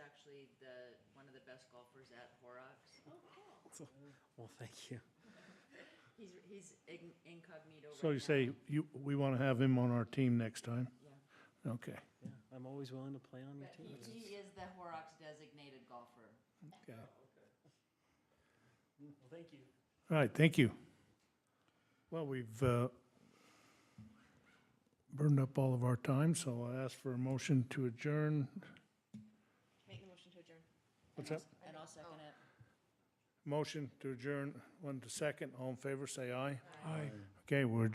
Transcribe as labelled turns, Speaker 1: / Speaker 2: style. Speaker 1: the, one of the best golfers at Horrocks.
Speaker 2: Well, thank you.
Speaker 1: He's, he's ign- incognito right now.
Speaker 3: So you say you, we want to have him on our team next time?
Speaker 1: Yeah.
Speaker 3: Okay,
Speaker 2: Yeah, I'm always willing to play on your
Speaker 1: But he,
Speaker 2: team.
Speaker 1: he is the Horrocks designated golfer.
Speaker 3: okay. All
Speaker 2: Well, thank you.
Speaker 3: right, thank you. Well, we've uh, burned up all of our time, so I'll ask for a motion to adjourn.
Speaker 4: Make the motion to adjourn.
Speaker 3: What's that?
Speaker 1: And I'll second it.
Speaker 3: Motion to adjourn, one to second. All in favor, say aye. Aye. Okay, we're